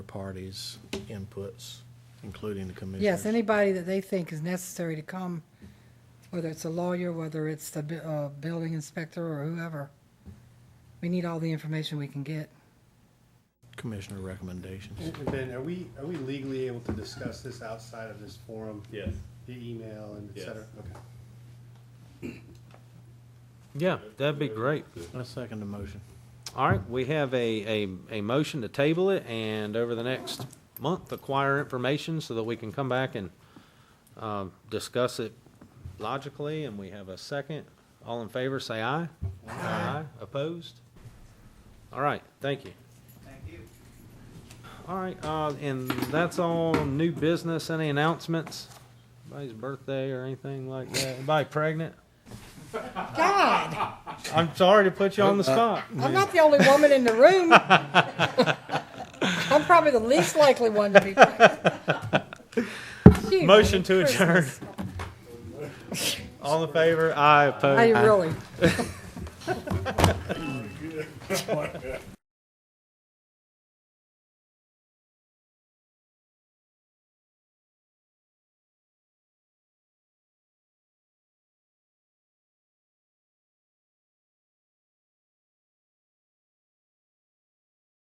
parties' inputs, including the commissioners. Yes, anybody that they think is necessary to come, whether it's a lawyer, whether it's the bu- uh, building inspector or whoever. We need all the information we can get. Commissioner recommendations. And Ben, are we, are we legally able to discuss this outside of this forum? Yes. The email and et Yes. cetera? Okay. Yeah, that'd be great. I second the motion. All right, we have a, a, a motion to table it and over the next month acquire information so that we can come back and, um, discuss it logically and we have a second. All in favor, say aye. Aye. Opposed? All right, thank you. Thank you. All right, uh, and that's all new business. Any announcements? Anybody's birthday or anything like that? Anybody pregnant? God, I'm sorry to put you on the spot. I'm not the only woman in the room. I'm probably the least likely one to be. pregnant. Motion to adjourn. All in favor? Aye, opposed? I really.